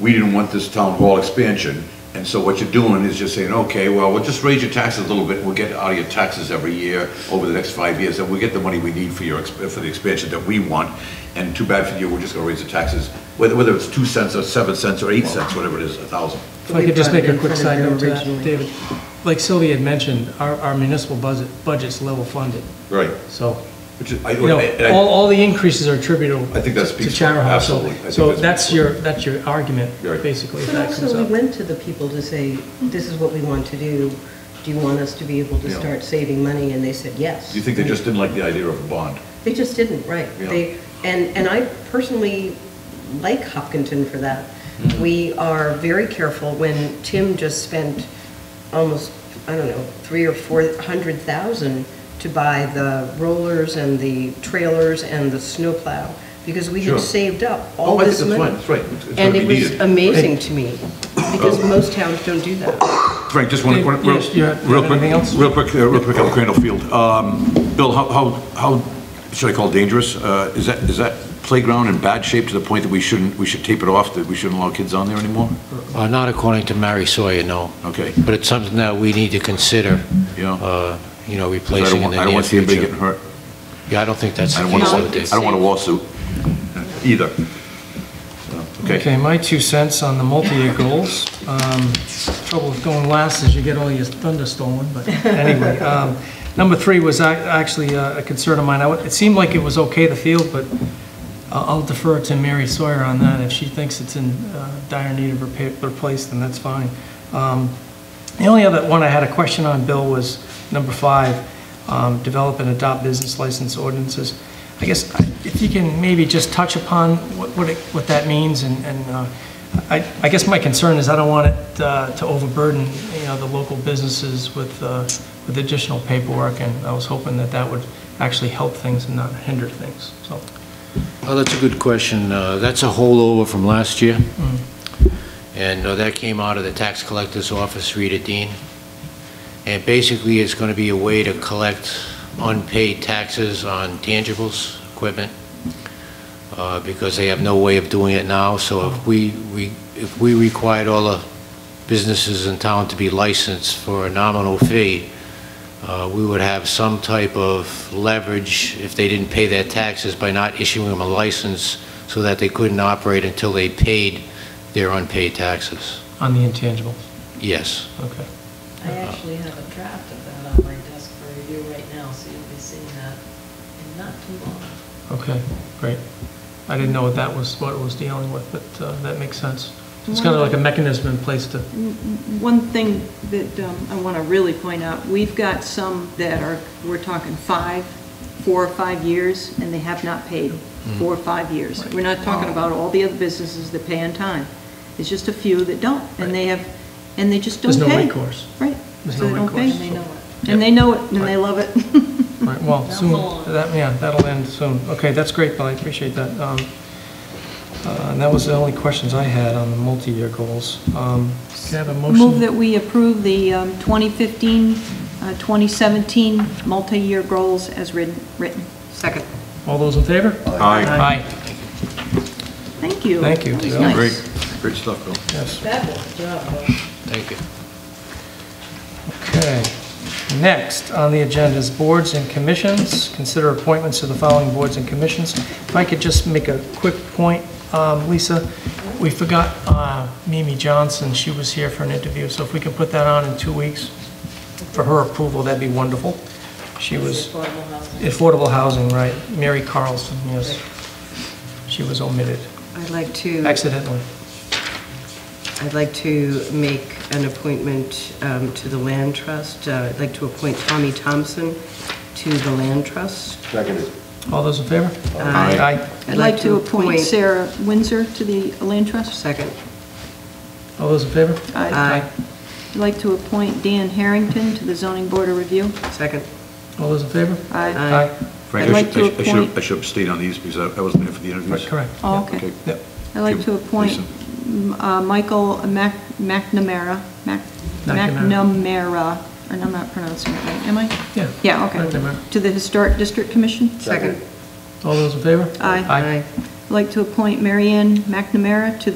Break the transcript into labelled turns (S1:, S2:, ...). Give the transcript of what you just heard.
S1: we didn't want this town hall expansion, and so what you're doing is just saying, okay, well, we'll just raise your taxes a little bit, we'll get out of your taxes every year over the next five years, and we'll get the money we need for your, exp- for the expansion that we want, and too bad for you, we're just gonna raise the taxes, whether, whether it's two cents or seven cents or eight cents, whatever it is, a thousand.
S2: If I could just make a quick side note to that,
S3: Originally.
S2: David, like Sylvia had mentioned, our, our municipal budget, budget's level funded,
S1: Right.
S2: so,
S1: Which is, I,
S2: you know,
S1: and I-
S2: all, all the increases are attributable
S1: I think that
S2: to
S1: speaks,
S2: Chara House. So-
S1: absolutely. I think
S2: So
S1: that
S2: that's
S1: speaks-
S2: your, that's your argument,
S1: Right.
S2: basically, if
S3: But
S2: that comes
S3: also, we
S2: up.
S3: went to the people to say, this is what we want to do. Do you want us to be able to
S1: Yeah.
S3: start saving money? And they said, yes.
S1: You think they just didn't like the idea of a bond?
S3: They just didn't, right.
S1: Yeah.
S3: They, and, and I personally like Hopkinton for that.
S1: Mm-hmm.
S3: We are very careful when Tim just spent almost, I don't know, three or four hundred thousand to buy the rollers and the trailers and the snowplow, because we
S1: Sure.
S3: had saved up
S1: Oh,
S3: all
S1: I think
S3: this
S1: that's
S3: money.
S1: fine. That's right. It's- it's
S3: And
S1: gonna
S3: it
S1: be
S3: was
S1: needed. Oh.
S3: amazing to me, because most towns don't do that.
S1: Frank, just one,
S2: Dave,
S1: one- real
S2: yes, you
S1: real
S2: had-
S1: quick,
S2: you had anything else?
S1: real quick, uh, real quick on Crandall Field. Um, Bill, how, how, how should I call it dangerous? Uh, Is that, is that playground in bad shape to the point that we shouldn't, we should tape it off, that we shouldn't allow kids on there anymore?
S4: Uh, Not according to Mary Sawyer, no.
S1: Okay.
S4: But it's something that we need to consider,
S1: Yeah.
S4: uh, you
S1: 'Cause I
S4: know,
S1: don't
S4: replacing in
S1: want-
S4: the
S1: I don't
S4: near
S1: want to see anybody getting
S4: future.
S1: hurt.
S4: Yeah, I don't think that's
S1: I
S4: the
S1: don't want,
S4: case
S1: a-
S4: with
S1: I don't want a lawsuit either. So, Okay.
S2: Okay, my two cents on the multi-year goals. Um, Trouble with going last is you get all your thunder stolen, but anyway. um, Number three was ac- actually uh, a concern of mine. I w- It seemed like it was okay, the field, but I- I'll defer to Mary Sawyer on that. If she thinks it's in uh, dire need of repa- replace, then that's fine. Um, The only other one I had a question on, Bill, was number five, um, develop and adopt business license ordinances. I guess I- if you can maybe just touch upon what what it- what that means, and and, uh, I I guess my concern is I don't want it uh, to overburden, you know, the local businesses with uh, with additional paperwork, and I was hoping that that would actually help things and not hinder things, so.
S4: Oh, that's a good question. Uh, That's a holdover from last year. And uh, that came out of the tax collector's office, Rita Dean. And basically, it's going to be a way to collect unpaid taxes on tangibles, equipment, uh, because they have no way of doing it now. So if we, we, if we required all the businesses in town to be licensed for a nominal fee, uh, we would have some type of leverage if they didn't pay their taxes by not issuing them a license so that they couldn't operate until they paid their unpaid taxes.
S2: On the intangibles,
S4: Yes.
S2: okay.
S5: I actually have a draft of that on my desk for review right now, so you'll be seeing that in not too long.
S2: Okay, great. I didn't know what that was, what it was dealing with, but uh, that makes sense. It's kind of like a mechanism in place to,
S6: One thing that um, I want to really point out, we've got some that are, we're talking five, four or five years, and they have not paid
S2: Mm-hmm.
S6: four or five years. We're not talking about all the other businesses that pay on time. It's just a few that don't, and they have, and they just don't
S2: There's
S6: pay.
S2: no recourse.
S6: Right.
S2: There's
S6: So
S2: no
S6: they don't pay.
S2: recourse.
S5: And they know it.
S6: And they know it, and they love it.
S2: right, well,
S5: That's
S2: soon,
S5: all.
S2: that, yeah, that'll end soon. Okay, that's great, Bill, I appreciate that. Um, uh, And that was the only questions I had on the multi-year goals. Um, Can I have a
S6: Move
S2: motion?
S6: that we approve the um, 2015, uh, 2017 multi-year goals as written. written. Second.
S2: All those in favor?
S1: Aye.
S2: Aye,
S6: Thank you.
S2: Thank you.
S6: That was
S2: Yeah,
S6: nice.
S1: Great, great stuff, Bill.
S2: yes,
S5: Fabulous job, though.
S4: Thank you.
S2: okay. Next on the agenda is boards and commissions. Consider appointments to the following boards and commissions. If I could just make a quick point, um, Lisa, we forgot uh, Mimi Johnson, she was here for an interview, so if we could put that on in two weeks for her approval, that'd be wonderful. She was...
S5: Affordable housing.
S2: Affordable housing, right. Mary Carlson, yes. She was omitted
S3: I'd like to.
S2: accidentally.
S3: I'd like to make an appointment um, to the Land Trust. Uh, I'd like to appoint Tommy Thompson to the Land Trust.
S2: All those in favor?
S3: Aye.
S6: I'd like to appoint Sarah Windsor to the Land Trust.
S3: Second.
S2: All those in favor?
S3: Aye.
S6: I'd like to appoint Dan Harrington to the Zoning Board of Review.
S3: Second.
S2: All those in favor?
S6: Aye.
S3: Aye.
S1: Frank,
S6: I'd
S1: I
S6: like
S1: should- I
S6: to
S1: should- I should,
S6: appoint-
S1: I should abstain on these because I I wasn't there for the interviews.
S2: Correct.
S6: Oh, okay.
S1: Okay.
S2: Yep.
S6: I'd like to appoint
S1: Lisa.
S6: mm, uh, Michael Mac- McNamara, Mac-
S2: McNamara.
S6: McNamara, and I'm not pronouncing it right, am I?
S2: Yeah.
S6: Yeah, okay.
S2: McNamara.
S6: To the Historic District Commission.
S3: Second.
S2: All those in favor?
S6: Aye.
S2: Aye.
S6: I'd like to appoint Marianne McNamara to